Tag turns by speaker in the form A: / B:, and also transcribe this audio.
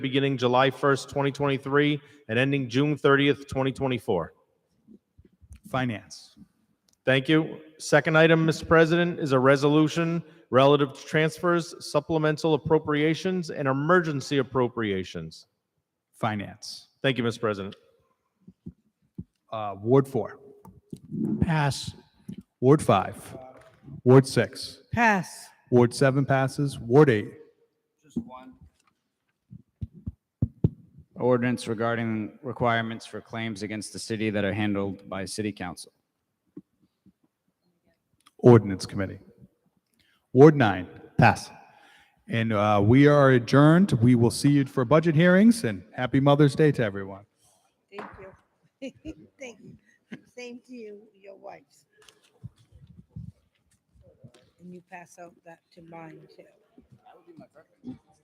A: beginning July 1st, 2023, and ending June 30th, 2024.
B: Finance.
A: Thank you. Second item, Mr. President, is a resolution relative to transfers, supplemental appropriations, and emergency appropriations.
B: Finance.
A: Thank you, Mr. President.
B: Uh, Ward four.
C: Pass.
B: Ward five. Ward six.
C: Pass.
B: Ward seven passes. Ward eight.
D: Ordinance regarding requirements for claims against the city that are handled by city council.
B: Ordinance Committee. Ward nine. Pass. And uh, we are adjourned. We will see you for budget hearings and happy Mother's Day to everyone.
E: Thank you. Thank you. Same to you, your wives. And you pass out that to mine too.